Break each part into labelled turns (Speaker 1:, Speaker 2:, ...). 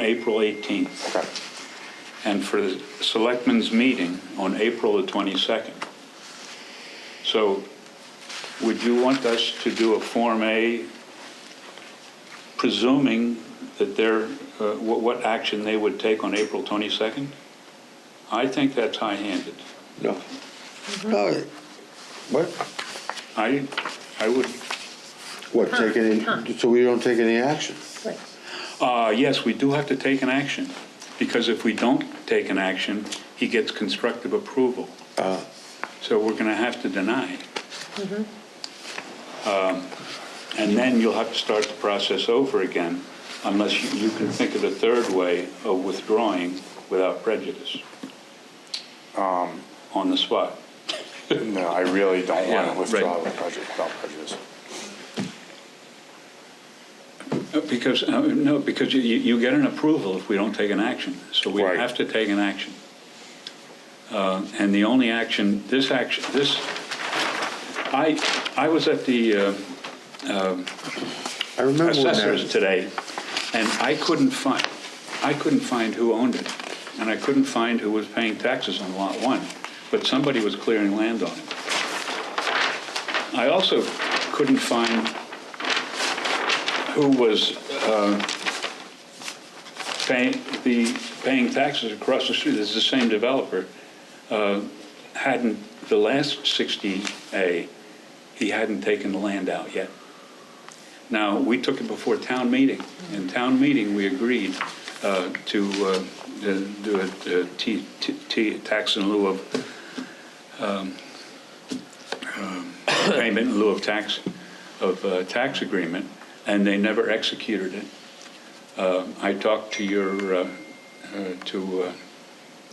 Speaker 1: April 18th,
Speaker 2: Okay.
Speaker 1: and for the selectmen's meeting on April the 22nd. So would you want us to do a Form A presuming that they're, uh, what what action they would take on April 22nd? I think that's high-handed.
Speaker 2: No. No. What?
Speaker 1: I, I would,
Speaker 2: What, take any, so we don't take any action?
Speaker 1: uh, yes, we do have to take an action, because if we don't take an action, he gets constructive approval. So we're going to have to deny. Um, And then you'll have to start the process over again, unless you you can think of a third way of withdrawing without prejudice. On the spot.
Speaker 3: No, I really don't
Speaker 1: Yeah,
Speaker 3: want
Speaker 1: right.
Speaker 3: to withdraw with prejudice, without prejudice.
Speaker 1: Uh, Because, uh, no, because you, you you get an approval if we don't take an action, so we
Speaker 3: Right.
Speaker 1: have to take an action. Uh, And the only action, this action, this, I, I was at the uh,
Speaker 2: I remember when
Speaker 1: assessors
Speaker 2: that,
Speaker 1: today, and I couldn't find, I couldn't find who owned it, and I couldn't find who was paying taxes on Lot 1, but somebody was clearing land on it. I also couldn't find who was uh, paying, the, paying taxes across the street, it's the same developer, uh, hadn't, the last 60A, he hadn't taken the land out yet. Now, we took it before town meeting. In town meeting, we agreed uh, to uh, to do a uh, T- T- T- tax in lieu of, um, um, payment in lieu of tax, of uh, tax agreement, and they never executed it. Uh, I talked to your, uh, uh, to uh,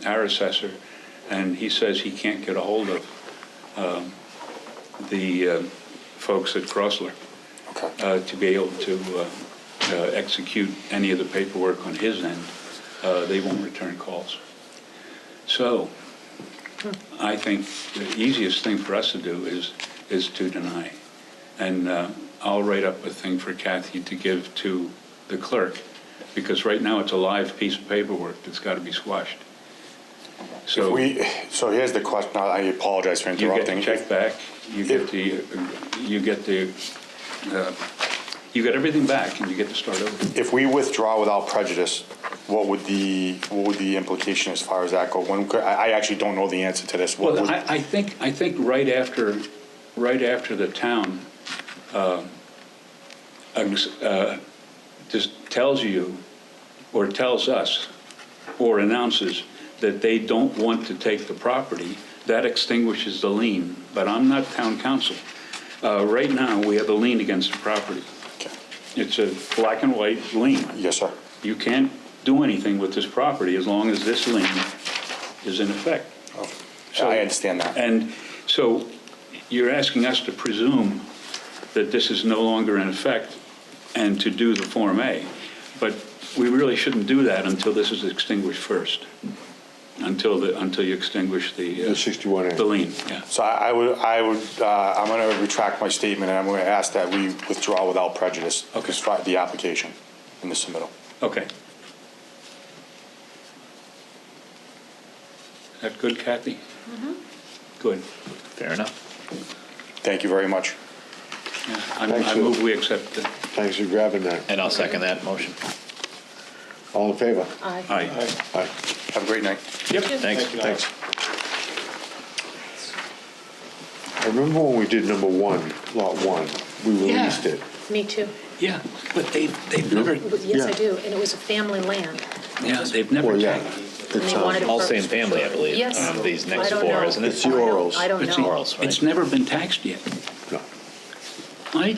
Speaker 1: our assessor, and he says he can't get a hold of um, the uh, folks at Crossler
Speaker 3: Okay.
Speaker 1: uh, to be able to uh, uh, execute any of the paperwork on his end, uh, they won't return calls. So I think the easiest thing for us to do is, is to deny. And uh, I'll write up a thing for Kathy to give to the clerk, because right now it's a live piece of paperwork that's got to be squashed.
Speaker 3: If
Speaker 1: So you
Speaker 3: we, so here's the question, I apologize for
Speaker 1: Oh. get
Speaker 3: interrupting.
Speaker 1: the check back, you get the, you get the, uh, you get everything back, and you get to start over.
Speaker 3: If we withdraw without prejudice, what would the, what would the implication as far as that go? When, could- I, I actually don't know the answer to this. What
Speaker 1: Well,
Speaker 3: would-
Speaker 1: I, I think, I think right after, right after the town um, ex- uh, just tells you, or tells us, or announces that they don't want to take the property, that extinguishes the lien. But I'm not town council. Uh, Right now, we have a lien against the property.
Speaker 3: Okay.
Speaker 1: It's a black and white lien
Speaker 3: Yes, sir.
Speaker 1: you can't do anything with this property as long as this lien is in effect. So-
Speaker 3: Oh, I understand that.
Speaker 1: And so you're asking us to presume that this is no longer in effect and to do the Form A. But we really shouldn't do that until this is extinguished first, until the, until you extinguish the. uh,
Speaker 2: The 61A.
Speaker 1: The lien, yeah.
Speaker 3: So I I would, I would, uh, I'm going to retract my statement, and I'm going to ask that we withdraw without prejudice.
Speaker 1: Okay.
Speaker 3: Withdraw The application and the submittal.
Speaker 1: Okay. That good, Kathy? Mm-hmm. Good.
Speaker 4: Fair enough.
Speaker 3: Thank you very much.
Speaker 1: Yeah, I'm-
Speaker 2: Thanks,
Speaker 1: I
Speaker 2: Lou.
Speaker 1: move we accept the,
Speaker 2: thanks for grabbing that.
Speaker 4: And I'll second that motion.
Speaker 2: All in favor?
Speaker 5: Aye.
Speaker 1: aye.
Speaker 2: Aye.
Speaker 3: Have a great night.
Speaker 4: Thanks.
Speaker 2: Thanks. I remember when we did number one, lot one, we released
Speaker 1: Yeah.
Speaker 2: it.
Speaker 5: Me too.
Speaker 1: Yeah, but they, they've never,
Speaker 5: Yes, I
Speaker 2: Yeah.
Speaker 5: do. And it was a family land.
Speaker 1: yeah, they've never
Speaker 2: Well, yeah.
Speaker 1: taken.
Speaker 5: And
Speaker 2: It's,
Speaker 5: they
Speaker 2: uh,
Speaker 5: wanted it
Speaker 4: All
Speaker 5: for-
Speaker 4: same family, I believe,
Speaker 5: Yes.
Speaker 4: um, these next
Speaker 5: I don't
Speaker 4: four,
Speaker 5: know.
Speaker 4: isn't it?
Speaker 2: It's yours.
Speaker 5: I
Speaker 4: Oh,
Speaker 5: don't
Speaker 1: But see,
Speaker 5: know.
Speaker 4: Orals, right?
Speaker 1: It's never been taxed yet.
Speaker 2: no.
Speaker 1: I,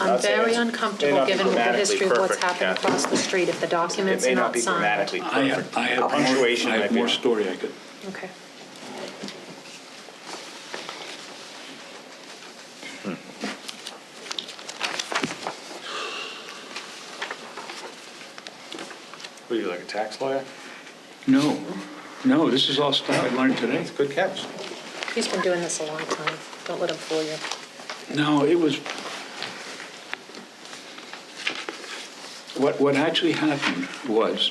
Speaker 5: I'm
Speaker 6: That's it.
Speaker 5: very
Speaker 6: It's- may
Speaker 5: uncomfortable,
Speaker 6: not be
Speaker 5: given the
Speaker 6: grammatically
Speaker 5: history of what's
Speaker 6: perfect,
Speaker 5: happened
Speaker 6: Kathy.
Speaker 5: across the street, if the
Speaker 6: It
Speaker 5: documents
Speaker 6: may
Speaker 5: are
Speaker 6: not
Speaker 5: not
Speaker 6: be
Speaker 5: signed.
Speaker 6: grammatically
Speaker 1: I
Speaker 6: perfect.
Speaker 1: have, I have more, I
Speaker 6: Punctuation might
Speaker 1: have
Speaker 6: be
Speaker 1: more
Speaker 6: wrong.
Speaker 1: story I could,
Speaker 5: Okay.
Speaker 6: What are you, like a tax lawyer?
Speaker 1: no, no, this is all stuff I learned today.
Speaker 6: It's good catch.
Speaker 5: He's been doing this a long time. Don't let him fool you.
Speaker 1: No, it was, What, what actually happened was,